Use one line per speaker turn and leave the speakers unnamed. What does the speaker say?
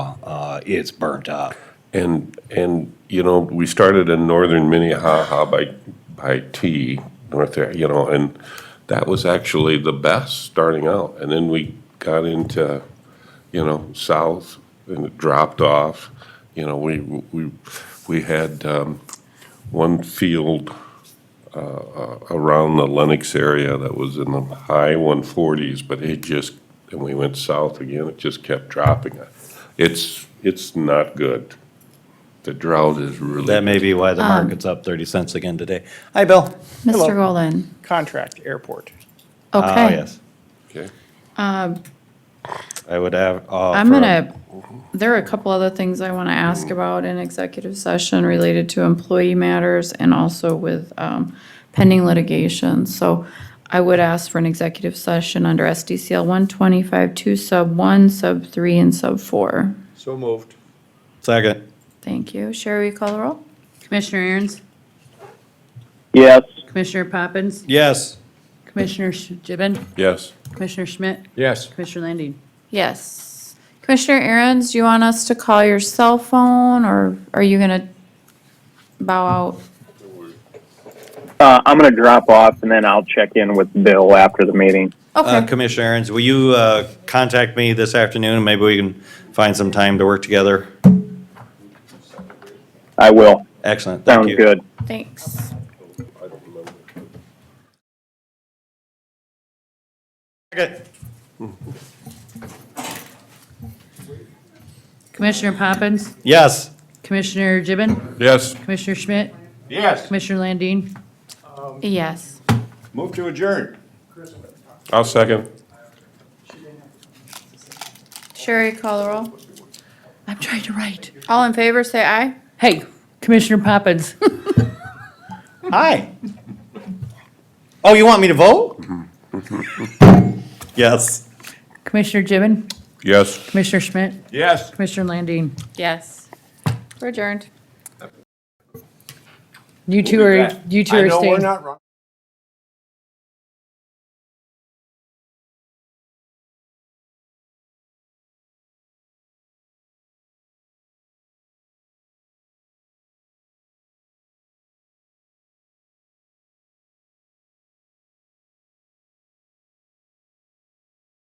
uh, it's burnt up.
And, and, you know, we started in northern Minnehaha by, by T, north there, you know, and that was actually the best starting out. And then we got into, you know, south and it dropped off. You know, we, we, we had, um, one field, uh, uh, around the Lenox area that was in the high one forties, but it just, and we went south again, it just kept dropping. It's, it's not good. The drought is really.
That may be
Um,
why the market's up 30 cents again today. Hi, Bill.
Mr. Golden.
contract airport.
Oh,
Okay.
yes.
Okay.
I would have. uh,
I'm gonna, there are a couple other things I want to ask about in executive session related to employee matters and also with um, pending litigation. So I would ask for an executive session under SDCL 125 2 sub 1, sub 3, and sub 4.
So moved.
Second.
Thank you. Sherry, will you call the roll?
Commissioner Aaron's?
yes,
Commissioner Poppins?
Yes.
Commissioner Sh- Gibbon?
Yes.
Commissioner Schmidt?
Yes.
Commissioner Landine?
Yes. Commissioner Aaron's, do you want us to call your cell phone or are you going to bow out?
uh, I'm gonna drop off and then I'll check in with Bill after the meeting.
Uh,
Okay.
Commissioner Aaron's, will you uh, contact me this afternoon? and Maybe we can find some time to work together.
I will.
Excellent. Thank
Sounds
you.
good.
Thanks.
Second.
Commissioner Poppins?
Yes.
Commissioner Gibbon?
Yes.
Commissioner Schmidt?
Yes.
Commissioner Landine?
Yes.
Move to adjourn.
I'll second.
Sherry, call the roll.
I'm trying to write.
All in favor, say aye.
Hey, Commissioner Poppins?
Hi. Oh, you want me to vote?
Mm-hmm.
Yes.
Commissioner Gibbon?
Yes.
Commissioner Schmidt?
Yes.
Commissioner Landine?
Yes. We're adjourned.
You two are, you two are staying.
I know we're not wrong.